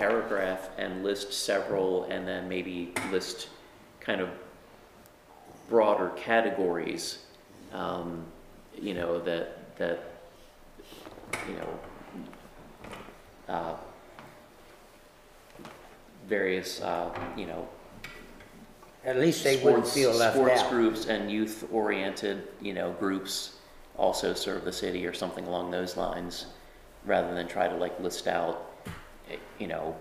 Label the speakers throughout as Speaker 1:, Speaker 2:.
Speaker 1: paragraph and list several, and then maybe list kind of broader categories, um, you know, that, that, you know, uh, various, uh, you know,
Speaker 2: At least they wouldn't
Speaker 1: sports-
Speaker 2: feel left
Speaker 1: Sports
Speaker 2: out.
Speaker 1: groups and youth-oriented, you know, groups also serve the city or something along those lines, rather than try to like list out, eh, you know,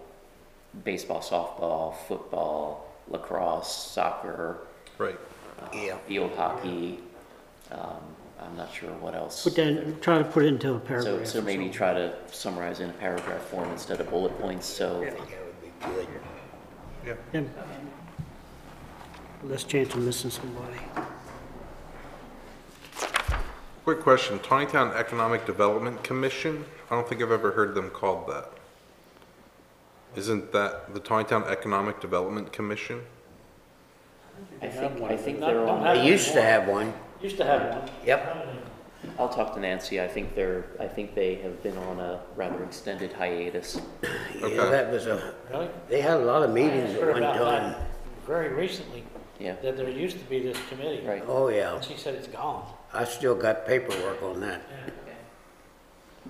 Speaker 1: baseball, softball, football, lacrosse, soccer,
Speaker 3: Right.
Speaker 2: Yeah.
Speaker 1: field hockey. Um, I'm not sure what else.
Speaker 4: Put that, try to put it into a
Speaker 1: So,
Speaker 4: paragraph.
Speaker 1: so
Speaker 4: or
Speaker 1: maybe
Speaker 4: something.
Speaker 1: try to summarize in a paragraph form instead of bullet points, so,
Speaker 2: I think that would be good.
Speaker 3: Yeah.
Speaker 4: Yeah. Less chance of missing somebody.
Speaker 3: Quick question, Tawnytown Economic Development Commission? I don't think I've ever heard them called that. Isn't that the Tawnytown Economic Development Commission?
Speaker 1: I think, I think
Speaker 5: Not-
Speaker 1: they're
Speaker 5: don't
Speaker 1: on.
Speaker 5: have
Speaker 2: They used to have one.
Speaker 5: Used to have one.
Speaker 2: Yep.
Speaker 1: I'll talk to Nancy. I think they're, I think they have been on a rather extended hiatus.
Speaker 2: Yeah, that was a,
Speaker 5: Really?
Speaker 2: they had a lot of meetings at
Speaker 5: Heard
Speaker 2: one
Speaker 5: about
Speaker 2: time.
Speaker 5: that Very recently,
Speaker 1: Yeah,
Speaker 5: that there used to be this committee.
Speaker 1: right.
Speaker 2: Oh, yeah.
Speaker 5: And she said it's gone.
Speaker 2: I still got paperwork on that.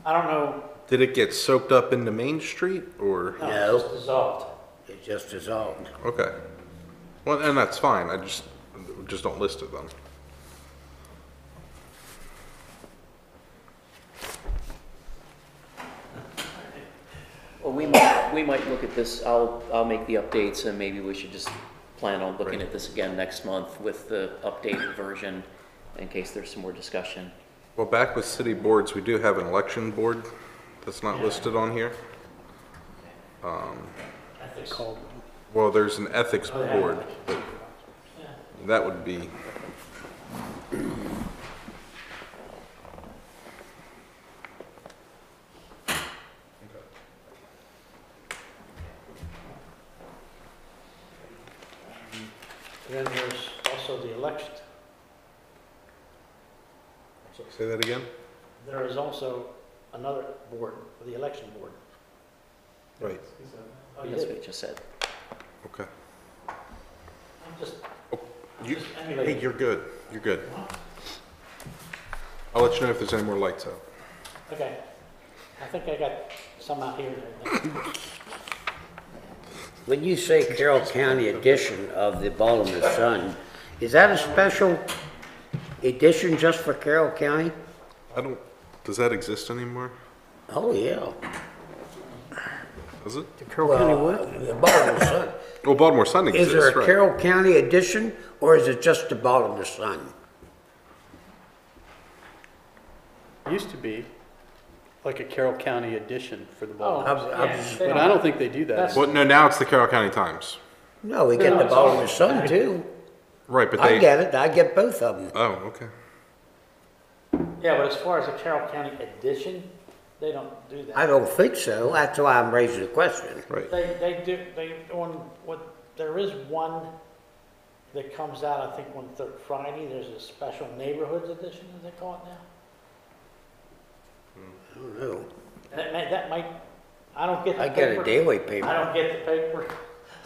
Speaker 5: I don't know,
Speaker 3: Did it get soaked up into Main Street or?
Speaker 5: no,
Speaker 2: No.
Speaker 5: it's dissolved.
Speaker 2: It just dissolved.
Speaker 3: Okay. Well, and that's fine, I just, just don't list it then.
Speaker 1: Well, we might, we might look at this. I'll, I'll make the updates and maybe we should just plan on looking at this again next month with the updated version in case there's some more discussion.
Speaker 3: Well, back with city boards, we do have an election board that's not listed on here. Um, Well, there's an ethics board, but that would be,
Speaker 5: Then there's also the election.
Speaker 3: say that again?
Speaker 5: There is also another board, the election board.
Speaker 3: Right.
Speaker 5: Oh, you
Speaker 1: That's
Speaker 5: did?
Speaker 1: what you just said.
Speaker 3: Okay.
Speaker 5: I'm just
Speaker 3: You,
Speaker 5: just
Speaker 3: hey,
Speaker 5: emulating.
Speaker 3: you're good, you're good. I'll let you know if there's any more lights out.
Speaker 5: Okay. I think I got some out here.
Speaker 2: When you say Carroll County edition of the Baltimore Sun, is that a special edition just for Carroll County?
Speaker 3: I don't, does that exist anymore?
Speaker 2: Oh, yeah.
Speaker 3: Does it?
Speaker 2: Carroll County what? The Baltimore Sun.
Speaker 3: Well, Baltimore Sun
Speaker 2: Is
Speaker 3: exists,
Speaker 2: there a
Speaker 3: right.
Speaker 2: Carroll County edition, or is it just the Baltimore Sun?
Speaker 6: Used to be like a Carroll County edition for the ball.
Speaker 2: I'm- I'm
Speaker 5: Yeah,
Speaker 2: just-
Speaker 5: Oh, they
Speaker 6: But
Speaker 5: don't-
Speaker 6: I don't think they do that.
Speaker 5: That's-
Speaker 3: Well, no, now it's the Carroll County Times.
Speaker 2: No, we get the
Speaker 5: it's
Speaker 2: Baltimore
Speaker 5: all-
Speaker 2: Sun too.
Speaker 3: Right, but they.
Speaker 2: I get it, I get both of them.
Speaker 3: Oh, okay.
Speaker 5: Yeah, but as far as the Carroll County edition, they don't do
Speaker 2: I
Speaker 5: that.
Speaker 2: don't think so, that's why I'm raising the question.
Speaker 3: Right.
Speaker 5: They, they do, they, on, what, there is one that comes out, I think, on Thursday, Friday. There's a special neighborhoods edition, as they call it now.
Speaker 2: I don't know.
Speaker 5: That may, that might, I don't get the
Speaker 2: I get a
Speaker 5: paper.
Speaker 2: daily
Speaker 5: I
Speaker 2: paper,
Speaker 5: don't get the paper.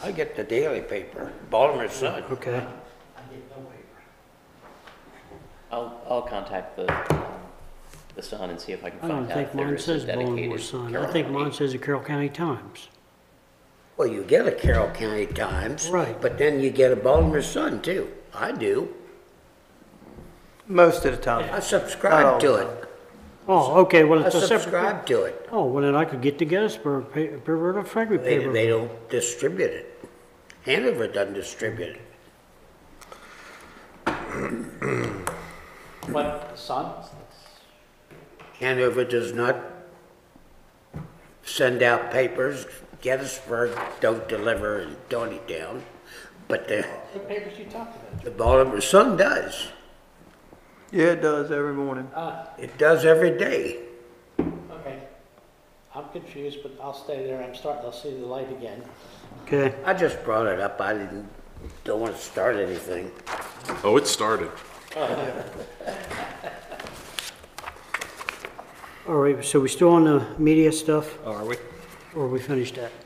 Speaker 2: I get the daily paper, Baltimore Sun.
Speaker 4: Okay.
Speaker 5: I get no paper.
Speaker 1: I'll, I'll contact the, um, the Sun and see if I can
Speaker 4: I
Speaker 1: find
Speaker 4: don't
Speaker 1: out if
Speaker 4: think
Speaker 1: there
Speaker 4: mine
Speaker 1: is a
Speaker 4: says Baltimore
Speaker 1: dedicated
Speaker 4: Sun. I
Speaker 1: Carroll
Speaker 4: think mine
Speaker 1: County.
Speaker 4: says the Carroll County Times.
Speaker 2: Well, you get a Carroll County Times.
Speaker 4: Right.
Speaker 2: But then you get a Baltimore Sun too, I do,
Speaker 7: Most of the time.
Speaker 2: I subscribe to it,
Speaker 4: Oh, okay, well,
Speaker 2: I
Speaker 4: it's a separate.
Speaker 2: subscribe to it.
Speaker 4: Oh, well, then I could get the Gettysburg pa- paper or the Frederick
Speaker 2: They,
Speaker 4: paper.
Speaker 2: they don't distribute it. Hanover doesn't distribute it.
Speaker 5: But Sun,
Speaker 2: Hanover does not send out papers. Gettysburg don't deliver in Downeytown, but the,
Speaker 5: what papers you talking about?
Speaker 2: the Baltimore Sun does.
Speaker 7: Yeah, it does every morning.
Speaker 5: Ah,
Speaker 2: It does every day.
Speaker 5: okay. I'm confused, but I'll stay there. I'm starting, I'll see the light again.
Speaker 4: Okay,
Speaker 2: I just brought it up. I didn't, don't want to start anything.
Speaker 3: Oh, it started.
Speaker 4: all right, so we still on the media stuff,
Speaker 3: Oh, are we?
Speaker 4: or we finished that?